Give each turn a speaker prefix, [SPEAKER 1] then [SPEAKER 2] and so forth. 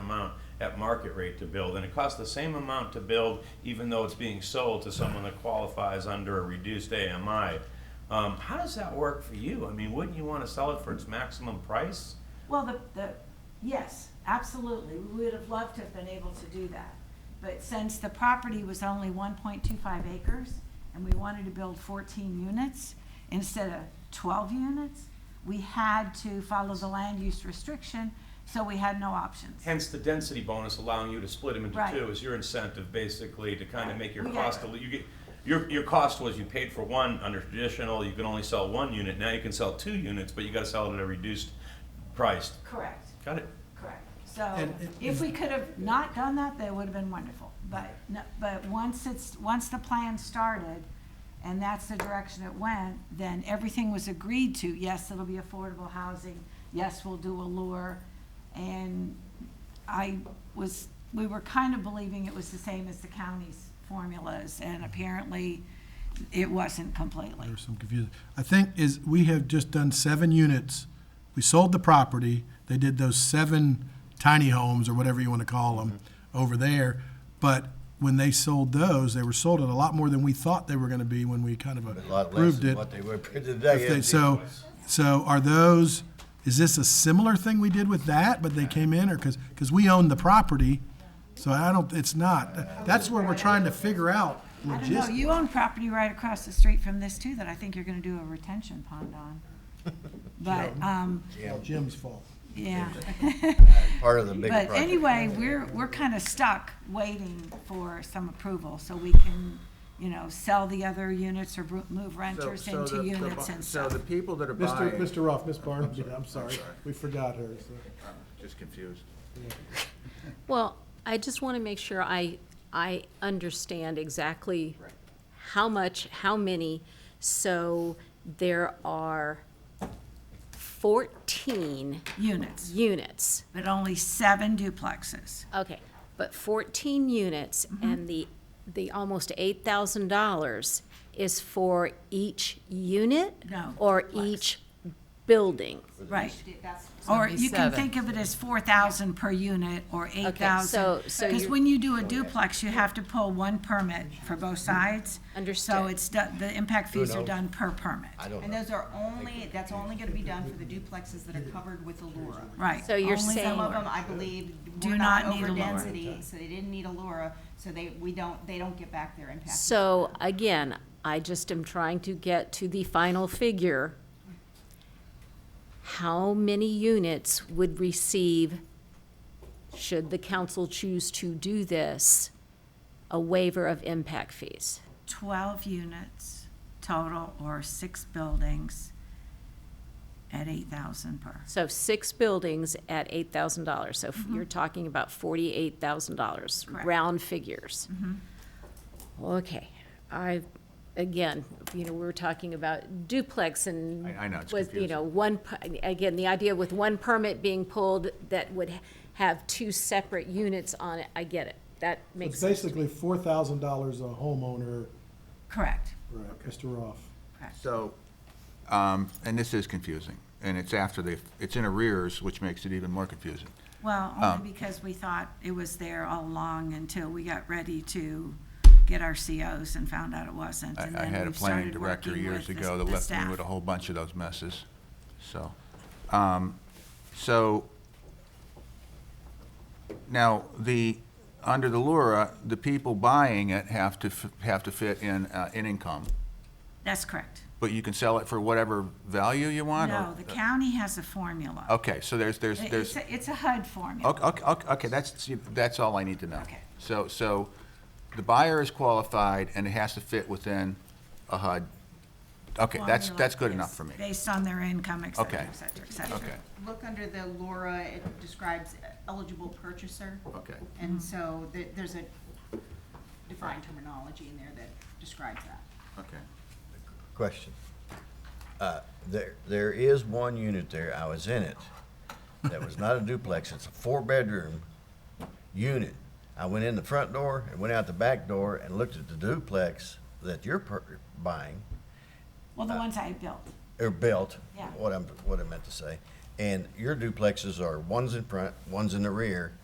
[SPEAKER 1] amount at market rate to build, and it costs the same amount to build, even though it's being sold to someone that qualifies under a reduced AMI. Um, how does that work for you? I mean, wouldn't you want to sell it for its maximum price?
[SPEAKER 2] Well, the, the, yes, absolutely, we would have loved to have been able to do that. But since the property was only one point two five acres, and we wanted to build fourteen units instead of twelve units, we had to follow the land use restriction, so we had no options.
[SPEAKER 1] Hence, the density bonus allowing you to split them into
[SPEAKER 2] Right.
[SPEAKER 1] two is your incentive, basically, to kind of
[SPEAKER 2] Right.
[SPEAKER 1] make your
[SPEAKER 2] We got
[SPEAKER 1] cost,
[SPEAKER 2] it.
[SPEAKER 1] a li- you get, your, your cost was you paid for one under traditional, you can only sell one unit, now you can sell two units, but you gotta sell it at a reduced price.
[SPEAKER 2] Correct,
[SPEAKER 1] Got it?
[SPEAKER 2] correct. So
[SPEAKER 3] And- and-
[SPEAKER 2] if we could have not done that, that would have been wonderful. But, no- but once it's, once the plan started, and that's the direction it went, then everything was agreed to. Yes, it'll be affordable housing. Yes, we'll do Allure. And I was, we were kind of believing it was the same as the county's formulas, and apparently it wasn't completely.
[SPEAKER 3] There was some confusion. I think is, we have just done seven units. We sold the property. They did those seven tiny homes or whatever you want to call them
[SPEAKER 4] Mm-hmm.
[SPEAKER 3] over there. But when they sold those, they were sold at a lot more than we thought they were going to be when we kind of
[SPEAKER 4] A lot less
[SPEAKER 3] approved
[SPEAKER 4] than
[SPEAKER 3] it.
[SPEAKER 4] what they were
[SPEAKER 3] If they-
[SPEAKER 4] today.
[SPEAKER 3] So, so are those, is this a similar thing we did with that, but they came in or, because, because we own the property? So I don't, it's not. That's where we're trying to figure out
[SPEAKER 2] I don't know,
[SPEAKER 3] logistics.
[SPEAKER 2] you own property right across the street from this too, that I think you're gonna do a retention pond on. But, um,
[SPEAKER 3] Jim's fault.
[SPEAKER 2] yeah,
[SPEAKER 4] Part of the big
[SPEAKER 2] but
[SPEAKER 4] project.
[SPEAKER 2] anyway, we're, we're kinda stuck waiting for some approval, so we can, you know, sell the other units or bro- move
[SPEAKER 5] So-
[SPEAKER 2] renters
[SPEAKER 5] so
[SPEAKER 2] into
[SPEAKER 5] the- the
[SPEAKER 2] units
[SPEAKER 5] bu-
[SPEAKER 2] and
[SPEAKER 5] So
[SPEAKER 2] stuff.
[SPEAKER 5] the people that are
[SPEAKER 3] Mr.
[SPEAKER 5] buying,
[SPEAKER 3] Mr. Ruff, Miss Barnaby, I'm sorry, we forgot her, so.
[SPEAKER 5] just confused.
[SPEAKER 6] Well, I just want to make sure I, I understand exactly how much, how many. So there are 14
[SPEAKER 2] Units,
[SPEAKER 6] units.
[SPEAKER 2] but only seven duplexes.
[SPEAKER 6] Okay, but 14 units
[SPEAKER 2] Mm-hmm.
[SPEAKER 6] and the, the almost $8,000 is for each unit?
[SPEAKER 2] No,
[SPEAKER 6] Or each building?
[SPEAKER 2] Right. Or you can think of it as four thousand per unit or eight thousand.
[SPEAKER 6] so- so
[SPEAKER 2] Because
[SPEAKER 6] you're-
[SPEAKER 2] when you do a duplex, you have to pull one permit for both sides. So
[SPEAKER 6] Mm-hmm. Understood.
[SPEAKER 2] it's, do- the impact fees are done per permit,
[SPEAKER 4] I don't
[SPEAKER 7] And
[SPEAKER 4] know.
[SPEAKER 7] those are only, that's only gonna be done for the duplexes that are covered with Allura.
[SPEAKER 2] right.
[SPEAKER 6] So you're
[SPEAKER 2] Only the-
[SPEAKER 7] Some
[SPEAKER 6] saying-
[SPEAKER 7] of them, I believe,
[SPEAKER 2] Do
[SPEAKER 7] were
[SPEAKER 2] not
[SPEAKER 7] not
[SPEAKER 2] need
[SPEAKER 7] over
[SPEAKER 2] Allura.
[SPEAKER 7] density, so they didn't need Allura, so they, we don't, they don't get back their impact.
[SPEAKER 6] So again, I just am trying to get to the final figure. How many units would receive, should the council choose to do this, a waiver of impact fees?
[SPEAKER 2] Twelve units total or six buildings at eight thousand per.
[SPEAKER 6] So six buildings at eight thousand dollars, so f- you're talking about forty-eight thousand dollars,
[SPEAKER 2] Correct.
[SPEAKER 6] round figures. Okay, I, again, you know, we were talking about duplex and.
[SPEAKER 5] I- I know, it's
[SPEAKER 6] was, You know, one, per- again, the idea with one permit being pulled that would have two separate units on it, I get it, that makes
[SPEAKER 3] It's
[SPEAKER 6] sense.
[SPEAKER 3] basically four thousand dollars a homeowner,
[SPEAKER 2] Correct,
[SPEAKER 3] right, Mr. Ruff.
[SPEAKER 2] correct.
[SPEAKER 5] So, um, and this is confusing, and it's after the, it's in arrears, which makes it even more confusing.
[SPEAKER 2] Well,
[SPEAKER 5] Um,
[SPEAKER 2] only because we thought it was there all along until we got ready to get our COs and found out it wasn't.
[SPEAKER 5] I,
[SPEAKER 2] and
[SPEAKER 5] I
[SPEAKER 2] then
[SPEAKER 5] had a
[SPEAKER 2] we've
[SPEAKER 5] planning
[SPEAKER 2] started
[SPEAKER 5] director
[SPEAKER 2] working
[SPEAKER 5] years
[SPEAKER 2] with the-
[SPEAKER 5] ago that
[SPEAKER 2] the
[SPEAKER 5] left me
[SPEAKER 2] staff.
[SPEAKER 5] with a whole bunch of those messes, so. um, So, now, the, under the Lura, the people buying it have to, f- have to fit in, uh, in income,
[SPEAKER 2] That's correct.
[SPEAKER 5] but you can sell it for whatever value you want? or-
[SPEAKER 2] No, the county has a formula.
[SPEAKER 5] Okay, so there's, there's,
[SPEAKER 2] It- It's,
[SPEAKER 5] there's.
[SPEAKER 2] a- it's a HUD formula.
[SPEAKER 5] Okay, okay, okay, okay, that's, see, that's all I need to know.
[SPEAKER 2] Okay.
[SPEAKER 5] So, so the buyer is qualified and it has to fit within a HUD. Okay, that's,
[SPEAKER 2] Formula
[SPEAKER 5] that's good
[SPEAKER 2] is
[SPEAKER 5] enough for me.
[SPEAKER 2] Based on their income, et cetera,
[SPEAKER 5] Okay.
[SPEAKER 2] et cetera, et cetera.
[SPEAKER 5] Okay,
[SPEAKER 7] Look under the Allura, it describes eligible purchaser.
[SPEAKER 5] okay.
[SPEAKER 7] And so there, there's a defined terminology in there that describes that.
[SPEAKER 5] Okay.
[SPEAKER 4] Question. Uh, There, there is one unit there, I was in it, that was not a duplex, it's a four-bedroom unit. I went in the front door and went out the back door and looked at the duplex that you're per- buying,
[SPEAKER 2] Well,
[SPEAKER 5] Uh,
[SPEAKER 2] the ones I built,
[SPEAKER 4] or built,
[SPEAKER 2] Yeah.
[SPEAKER 4] what I'm, what I meant to say. And your duplexes are one's in front, one's in the rear,